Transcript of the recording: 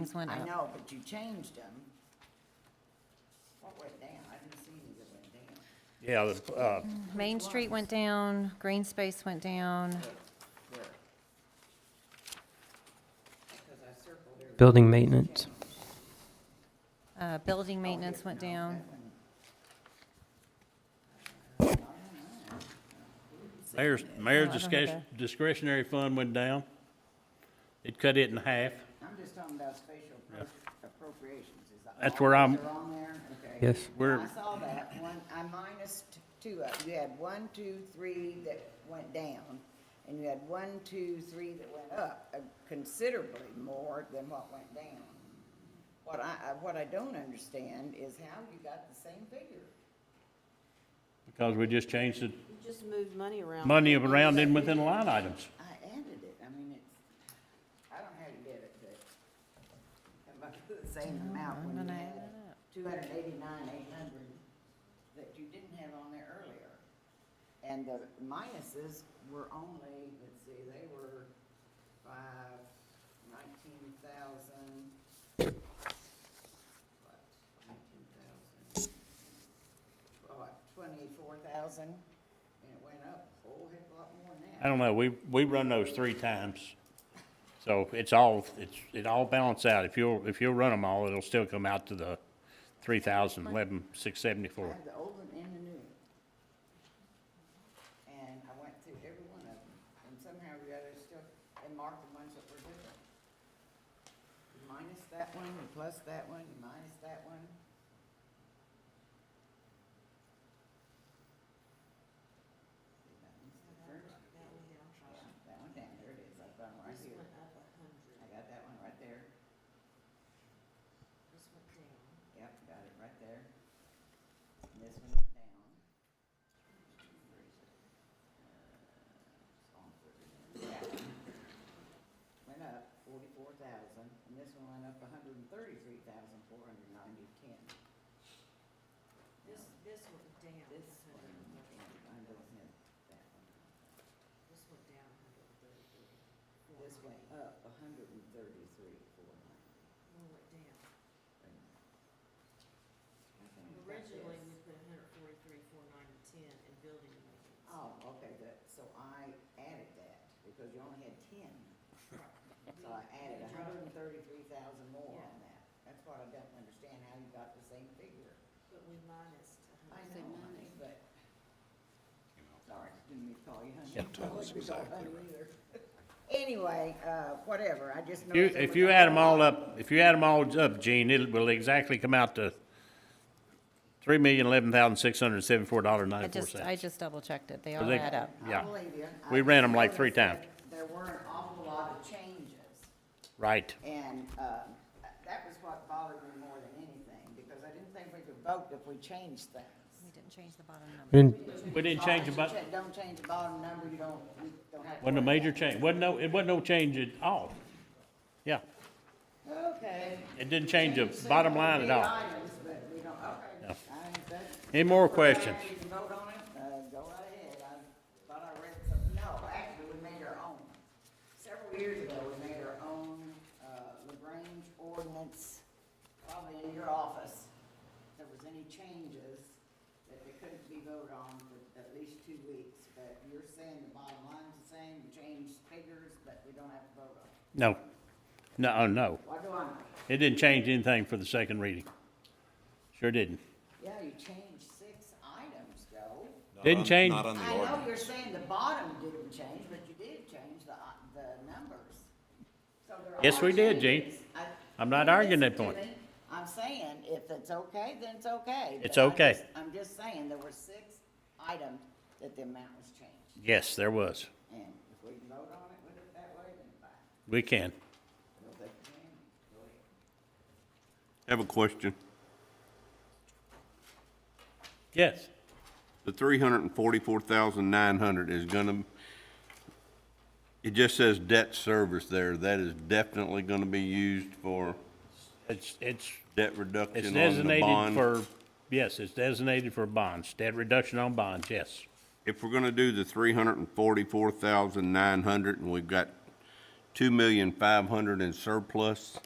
Things went I up. know, but you changed them. What went down? I didn't see any that went Yeah, down. the, uh, Main Street went down, green space went down. Where? Because I circled every. Building maintenance. Uh, Oh, Building maintenance went down. Mayor's, mayor's No, Oh, I don't have discretion- discretionary fund went down. It cut it in half. I'm just talking about spatial appro- appropriations. Is that That's all where those I'm- are on there? Okay. Yes. We're- I saw that one, I minus t- two of, you had one, two, three that went down, and you had one, two, three that went up uh, considerably more than what went down. What I, I- what I don't understand is how you got the same figure. Because we just changed the You just moved money Oh. around. money around in within line items. I added it, I mean, it's, I don't know how you did it, but it must be the same Mm-hmm. amount when you had two hundred eighty-nine, eight hundred that you didn't have on there earlier. And the minuses were only, let's see, they were five, nineteen thousand. What, nineteen thousand? What, twenty-four thousand? And it went up a whole heck of a lot more than that. I don't know, we, we run those three times. So it's all, it's, it all balance out. If you'll, if you'll run them all, it'll still come out to the three thousand eleven, six I seventy-four. have the old one and the new one. And I went through every one of them, and somehow or the other still, and marked the ones that were different. You Minus that one, you plus that one, you minus that one. That one's different. Yeah, That one down, there it is, I've got one right here. I got that one right there. Yep, got it right there. And this one went down. Where is it? Uh, it's on thirty. That one Went up forty-four thousand, and this one went up a hundred and thirty-three thousand, four hundred and ninety, ten. This, this went down. This one, mine doesn't have that one. This went down a hundred and thirty-three. This went up a hundred and thirty-three, four ninety. One went down. Wait a minute. I think it's got Originally, this. we put a hundred forty-three, four ninety, ten in building maintenance. Oh, okay, that, so I added that, because you only had ten. So I added a hundred and thirty-three thousand more on that. That's what I don't understand, how you got the same figure. But we minus a I hundred. know, and honey, thirty. but. Sorry, didn't mean to call you honey. Yeah, that's exactly right. Anyway, uh, whatever, I just If you, noticed. there if was you a add them whole all lot- up, if you add them all up, Gene, it will exactly come out to three million eleven thousand six hundred seventy-four dollar I ninety-four just, I cents. just double checked it. They all they- add up. I yeah. believe you. I We ran 'em just like three noticed that There were an awful lot of changes. Right. And um, that was what bothered me more than anything, because I didn't think we could vote if we changed things. We didn't change the bottom number. We didn't- We didn't change the bu- Don't- Don't change the bottom number, you don't, you don't have to. Wasn't a worry major about change, wasn't no, it wasn't no change at all. Yeah, it. Okay. it didn't change the bottom line at all. Items, but we don't, okay. I- that's- Any more questions? If you vote on it, uh, go right ahead. I thought I read some, no, actually, we made our own. Several years ago, we made our own uh, LaGrange ordinance, probably in your office. If there was any changes that they couldn't be voted on for at least two weeks, but you're saying the bottom line's the same, you changed figures, but we don't have to vote on it. No, no, oh, no, What do I know? it didn't change anything for the second reading. Sure didn't. Yeah, you changed six items, Joe. Not Didn't on- change. Not on the I know ordinance. you're saying the bottom didn't change, but you did change the, uh, the numbers. So there Yes, are we did, Gene. changes. I- I'm not you arguing that listen to point. me. I'm saying, if it's okay, then it's okay. but It's I okay. just- I'm just saying, there were six items that the amount was changed, Yes, there was. and if we can vote on it with it that way, then fine. We can. If they can, go ahead. I Have a question. Yes. The three hundred and forty-four thousand nine hundred is gonna, it just says debt service there. That is definitely gonna be used for It's, it's, debt it's reduction on the designated bond. for, yes, it's designated for bonds, debt reduction on bonds, yes. If we're gonna do the three hundred and forty-four thousand nine hundred and we've got two million five hundred in surplus,